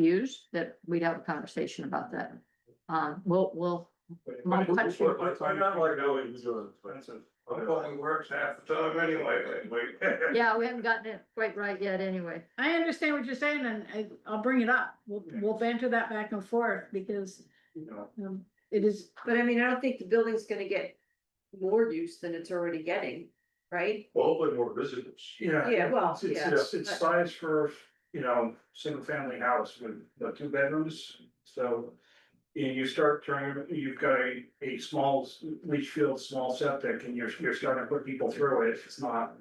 abused, that we'd have a conversation about that. Um, we'll, we'll, My But it's- question- but I'm not like going to expensive. It only works half the time anyway, like, like. yeah, we haven't gotten it quite right yet anyway. I understand what you're saying and I, I'll bring it up. We'll, we'll banter that back and forth because, You know, um, it is, But I mean, I don't think the building's gonna get more use than it's already getting, right? well, Hopefully more visitors. Yeah, Yeah, well, it's, it's, yeah, it's, it's size for, you know, single family house with the two bedrooms, so. And you start turning, you've got a, a small s- leach field, small septic, and you're, you're starting to put people through it, it's not.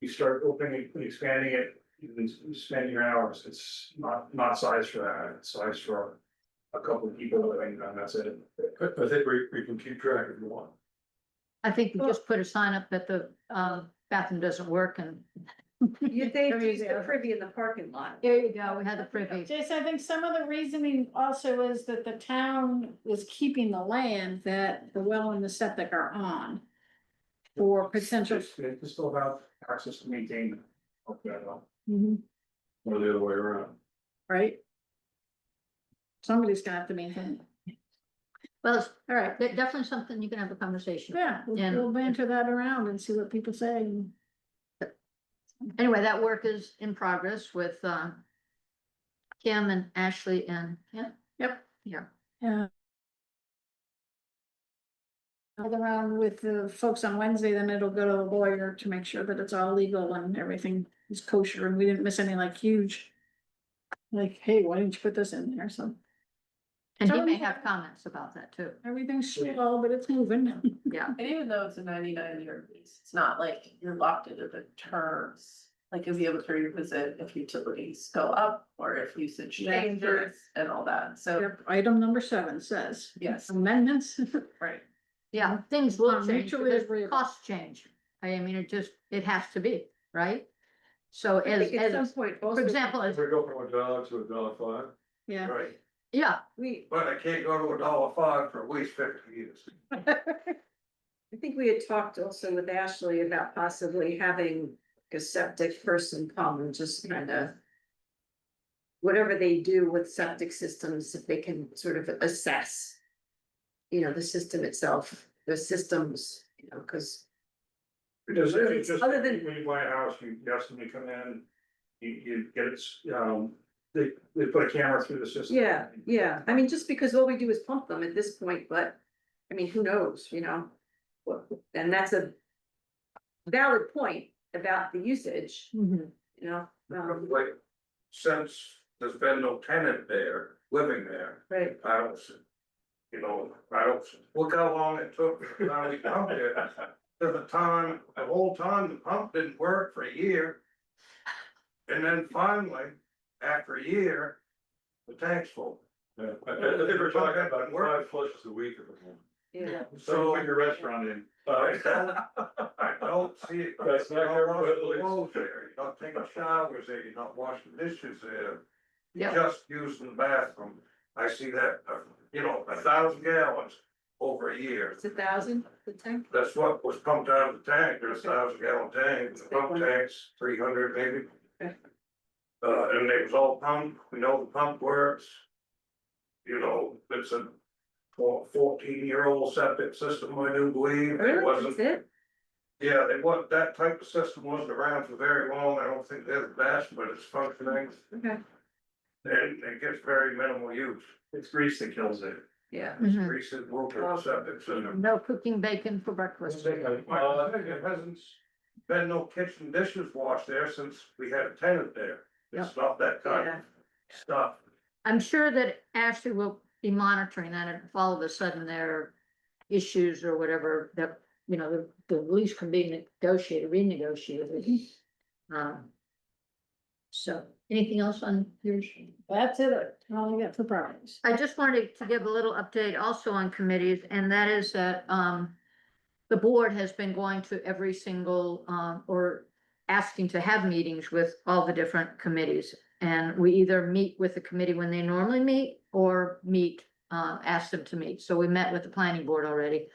You start opening, and expanding it, you can spend your hours, it's not, not size for that, it's size for. A couple of people living, and that's it. I, I think we, we can keep track if you want. I think we just put a sign up that the, um, bathroom doesn't work and. you think There you use the go. privy in the parking lot. There you go, we had the privy. Jason, I think some of the reasoning also is that the town is keeping the land that the well and the septic are on. For potential, It's, it's still about access to maintain. Okay, well, Mm-hmm. Or the other way around. right? Somebody's gonna have to maintain, it. Well, it's all right, de- definitely something you can have a conversation. yeah, we'll And- we'll banter that around and see what people say and. Anyway, that work is in progress with, uh, Kim and Ashley and, yeah, Yep. Yeah. Yeah. All around with the folks on Wednesday, then it'll go to the lawyer to make sure that it's all legal and everything is kosher and we didn't miss any like huge. Like, hey, why didn't you put this in there? So and he Tell may me- have comments about that too. everything's slow, but it's moving. And even though it's a ninety-nine year lease, it's not like you're locked into the terms. Like you'll be able to revisit if utilities go up or if usage Yeah. changes and all that, Oh. so, Yep, Item number seven says yes, amendments. right. Yeah, things will Um, change mutually because agreeable. costs change. I mean, it just, it has to be, right? So I as, think at some as, point, for also, example, If as, we go from a dollar to a dollar five. Yeah, Right. yeah, we, But I can't go to a dollar five for at least fifty years. I think we had talked also with Ashley about possibly having a septic person come and just kind of. Whatever they do with septic systems, if they can sort of assess. You know, the system itself, the systems, you know, because Because if it's just, Other than- when you buy a house, you ask them to come in, you, you get it, um, they, they put a camera through the system. Yeah, yeah, I mean, just because all we do is pump them at this point, but, I mean, who knows, you know? What, and that's a valid point about the usage, you know, um, Like, since there's been no tenant there, living there, right, I don't, see- you know, I don't, see- look how long it took, from the time we pumped it, to the time, the whole time the pump didn't work for a year. And then finally, after a year, the tank's full. Yeah, I, I think we're talking about five flushes a week or something. yeah. So put your restaurant in. I don't, I don't see it. That's not You're your not washing place. clothes there, you're not taking showers there, you're not washing dishes there. You're Yeah. Just using the bathroom, I see that, uh, you know, a thousand gallons over a year. It's a thousand, the tank, That's what was pumped out of the tank, there's a thousand gallon tank, the pump tanks, three hundred maybe. Okay. Uh, and it was all pumped, we know the pump works. You know, it's a fourteen year old septic system, I do believe, it really, wasn't that's it? yeah, they want, that type of system wasn't around for very long, I don't think they're the best, but it's functioning, Okay, and it gets very minimal use. It's grease that kills it. yeah, Mhm. Recent world septic system. no cooking bacon for breakfast. Well, I think uh, It hasn't been no kitchen dishes washed there since we had a tenant there, it's not that kind of Yeah. stuff. I'm sure that Ashley will be monitoring that and if all of a sudden there are issues or whatever that, you know, the, the lease can be negotiated, renegotiated. Um, So, anything else on yours? that's it. All I got for properties. I just wanted to give a little update also on committees, and that is that, um, the board has been going to every single, um, or asking to have meetings with all the different committees. And we either meet with the committee when they normally meet or meet, uh, ask them to meet. So we met with the planning board already.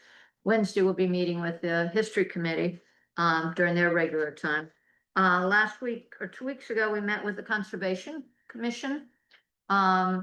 Wednesday, we'll be meeting with the history committee, um, during their regular time. Uh, last week or two weeks ago, we met with the conservation commission. Um,